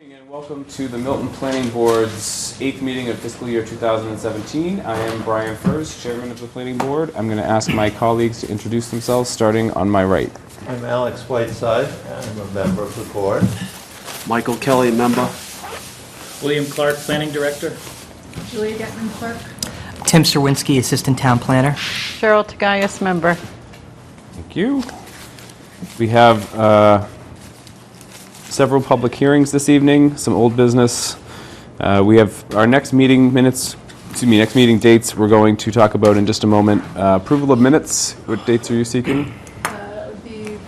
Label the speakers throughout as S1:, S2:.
S1: And welcome to the Milton Planning Board's eighth meeting of fiscal year 2017. I am Brian Furz, Chairman of the Planning Board. I'm going to ask my colleagues to introduce themselves, starting on my right.
S2: I'm Alex Whiteside, I'm a member of the board.
S3: Michael Kelly, member.
S4: William Clark, Planning Director.
S5: Julia Getman, clerk.
S6: Tim Serwinski, Assistant Town Planner.
S7: Cheryl Tagayas, member.
S1: Thank you. We have uh, several public hearings this evening, some old business. Uh, We have our next meeting minutes, excuse me, next meeting dates we're going to talk about in just a moment. Uh, Approval of minutes, what dates are you seeking?
S5: Uh, The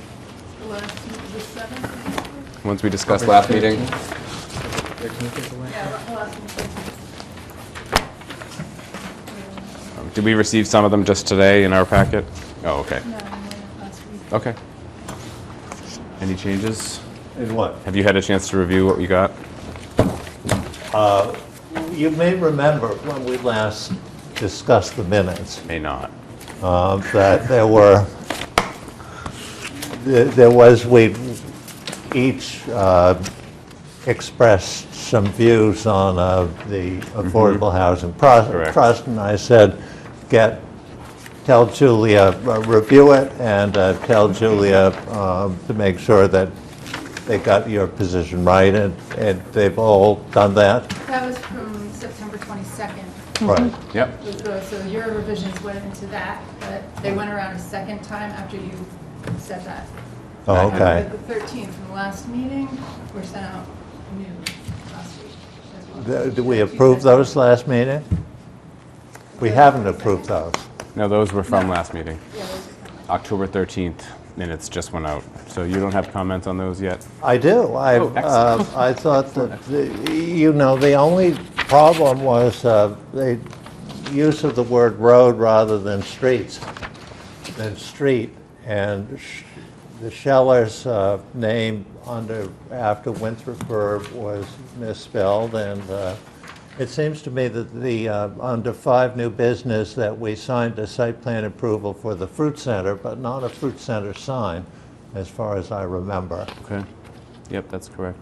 S5: last, the seventh?
S1: Ones we discussed last meeting.
S5: Yeah, the last one. Uh,
S1: Did we receive some of them just today in our packet? Oh, okay.
S5: No, no, last week.
S1: Okay. Any changes?
S2: And what?
S1: Have you had a chance to review what we got?
S2: You may remember when we last discussed the minutes,
S1: May not.
S2: uh, that there were, there there was, we each uh, expressed some views on uh, the Affordable Housing Pro-
S1: Correct.
S2: Trust, and I said, get, tell Julia, uh, review it, and uh, tell Julia um, to make sure that they got your position right, and and they've all done that.
S5: That was from September 22nd.
S2: Right.
S1: Yep.
S5: was the- So your revisions went into that, but they went around a second time after you said that.
S2: Oh, Okay.
S5: But The 13 from the last meeting were sent out new last week as well.
S2: Th- Did we approve those last meeting? We haven't approved those.
S1: No, those were from last meeting.
S5: Yeah, those are from-
S1: October 13th minutes just went out. So you don't have comments on those yet?
S2: I do. I,
S1: Oh,
S2: uh, I thought that, the- you know, the only problem was uh, the use of the word road rather than streets, than street. And sh- the Scheller's uh, name under, after Winthrop Verb was misspelled. And uh, it seems to me that the, uh, under five new business, that we signed a site plan approval for the fruit center, but not a fruit center sign, as far as I remember.
S1: Okay. Yep, that's correct.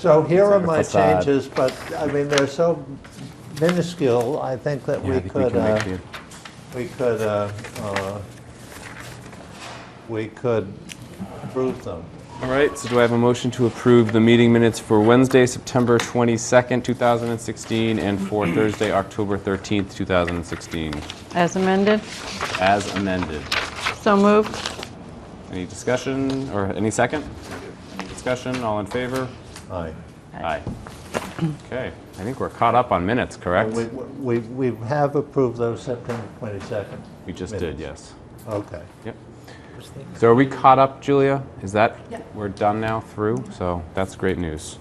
S2: So here are my
S1: Facade.
S2: changes, but, I mean, they're so minuscule, I think that
S1: Yeah,
S2: we
S1: I think we
S2: could,
S1: can make
S2: uh,
S1: the,
S2: we could, uh, uh, we could approve them.
S1: all right, so do I have a motion to approve the meeting minutes for Wednesday, September 22nd, 2016, and for Thursday, October 13th, 2016,
S7: As amended,
S1: as amended?
S7: so moved.
S1: Any discussion, or any second? Any discussion, all in favor?
S2: Aye.
S1: Aye. Okay, I think we're caught up on minutes, correct?
S2: We, we, we have approved those September 22nd.
S1: We just did, yes.
S2: Okay.
S1: Yep. So are we caught up, Julia? Is that?
S5: Yeah.
S1: We're done now through, so that's great news.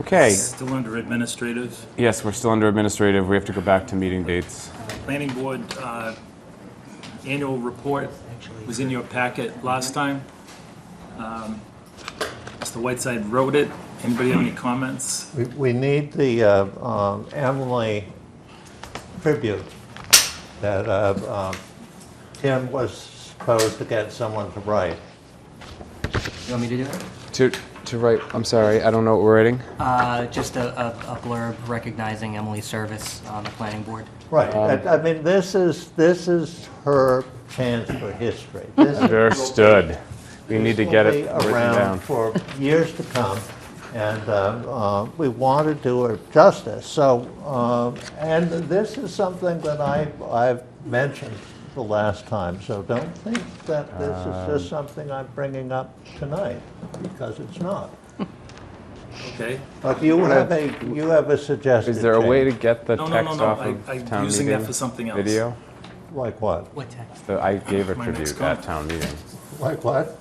S1: Okay,
S4: Still under administrative.
S1: yes, we're still under administrative, we have to go back to meeting dates.
S4: Planning Board uh, annual report was in your packet last time. Um, Mr. Whiteside wrote it. Anybody have any comments?
S2: We, we need the uh, um, Emily tribute that uh, um, Tim was supposed to get someone to write.
S6: You want me to do it?
S1: To, to write, I'm sorry, I don't know what we're writing.
S6: Uh, just a, a a blurb recognizing Emily's service on the planning board.
S2: Right,
S1: Um,
S2: I- I mean, this is, this is her chance for history. This is-
S1: Understood. We need to
S2: will
S1: get
S2: be
S1: it written
S2: around
S1: down.
S2: for years to come, and uh, uh, we want to do her justice, so, um, and this is something that I, I've mentioned the last time, so don't think that this
S1: Um,
S2: is just something I'm bringing up tonight, because it's not.
S4: Okay.
S2: But you have a, you have a suggested
S1: Is there a way to
S2: change.
S1: get the
S4: No, no, no,
S1: text
S4: no,
S1: off
S4: I-
S1: of town
S4: I'm
S1: meeting?
S4: using that for something else.
S1: Video?
S2: Like what?
S6: What text?
S1: So I gave a
S4: My next
S1: tribute at
S4: comment.
S1: town meeting.
S2: Like what?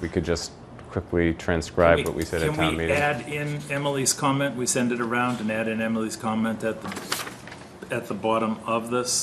S1: We could just quickly transcribe what we said at town
S4: Can we
S1: meeting.
S4: add in Emily's comment? We send it around and add in Emily's comment at the, at the bottom of this?